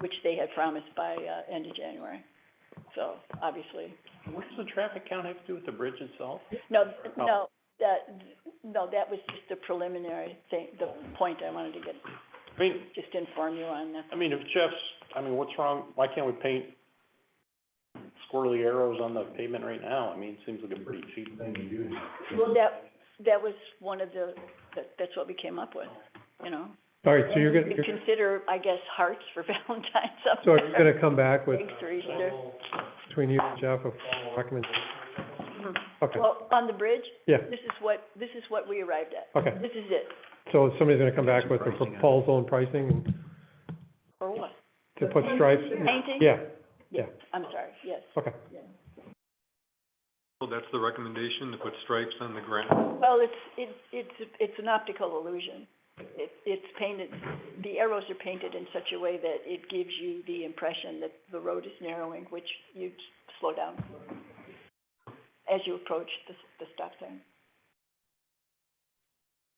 which they had promised by, uh, end of January. So, obviously, What does the traffic count have to do with the bridge itself? no, Oh. Or no? no, that, no, that was just the preliminary thing, the point I wanted to get, I mean, just inform you on that. I mean, if Jeff's, I mean, what's wrong, why can't we paint squirrely arrows on the pavement right now? I mean, it seems like a pretty cheap thing to do. Well, that, that was one of the, that, that's what we came up with, you know? All right, so you're We gonna, you're, Consider, I guess, hearts for Valentine's up so there. are you gonna come back with, Thanks for Easter. between you and Jeff, a formal recommendation? Mhm. Okay, Well, on the bridge, yeah, this is what, this is what we arrived at. okay. This is it. So somebody's gonna come back with a Pricing on it. proposal and pricing and For what? to put stripes? Painting? Yeah, I'm sorry, yes. okay. Well, Oh, that's the recommendation, to put stripes on the ground. Well, it's, it's, it's, it's an optical illusion. It, it's painted, the arrows are painted in such a way that it gives you the impression that the road is narrowing, which you slow down as you approach the, the stop sign.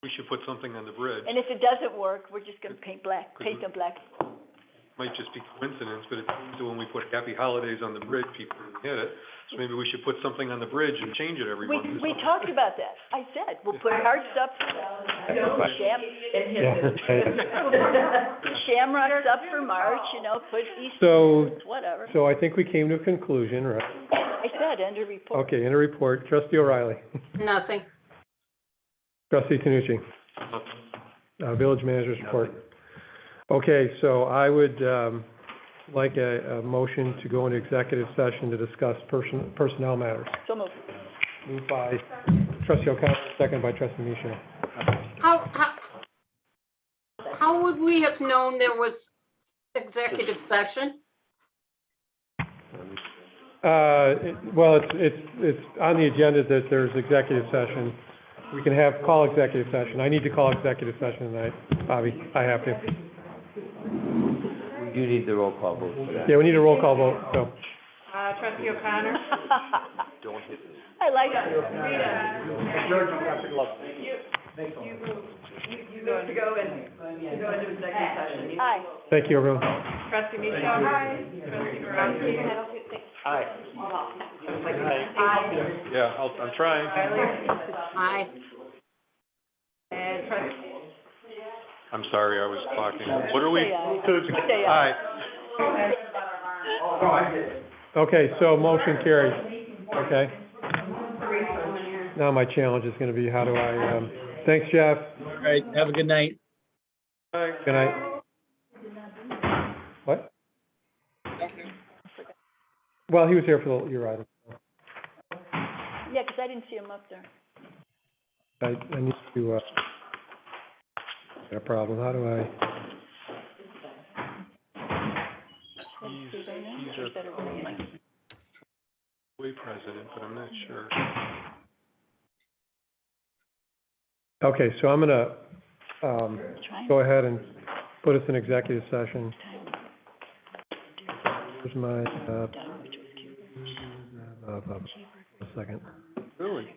We should put something on the bridge. And if it doesn't work, we're just gonna paint black, paint them black. Might just be coincidence, but it seems that when we put happy holidays on the bridge, people hit it. So maybe we should put something on the bridge and change it every We, month. or we something. talked about that. I said, we'll put hearts up, sham, Yeah. shamrocks up for March, you know, put Easter, So, whatever. so I think we came to a conclusion, right? I said, under report. Okay, in a report, trustee O'Reilly, Nothing. trustee Tanucci, uh, village manager's report. Okay, so I would, um, like a, a motion to go into executive session to discuss person, personnel matters. So moved. Moved by trustee O'Connor, second by trustee Micho. How, how, how would we have known there was executive session? Uh, it- well, it's, it's, it's on the agenda that there's executive session. We can have, call executive session. I need to call executive session tonight, Bobby, I have to. You need the roll call vote for that. Yeah, we need a roll call vote, so. Uh, trustee O'Connor? I like it. You go to go in, to go into executive session. Aye. Thank you, everyone. Trustee Michelle? Aye. Trustee Barowski? Yeah, I'll, I'm trying. Aye. And trustee I'm sorry, I was talking. What are we? Say aye. to- Say aye. Aye. Okay, so motion carries, okay? Now my challenge is gonna be how do I, um, thanks, Jeff. All right, have a good night. Good night. What? Well, he was here for the, you're right. Yeah, 'cause I didn't see him up there. I, I need to, uh, got a problem, how do I? Let's see, right now, is that a roll? Way president, but I'm not sure. Okay, so I'm gonna, um, Trying go ahead and put us in executive session. Here's my, uh, down, which was cute. uh, uh, a second. Really?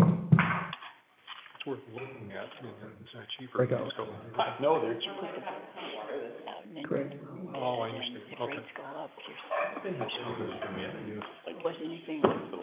It's worth looking at, I mean, it's not cheaper. Break out. It's going- No, they're, Out and then Oh, I understand, if okay. rates go up, here's- Like, wasn't anything,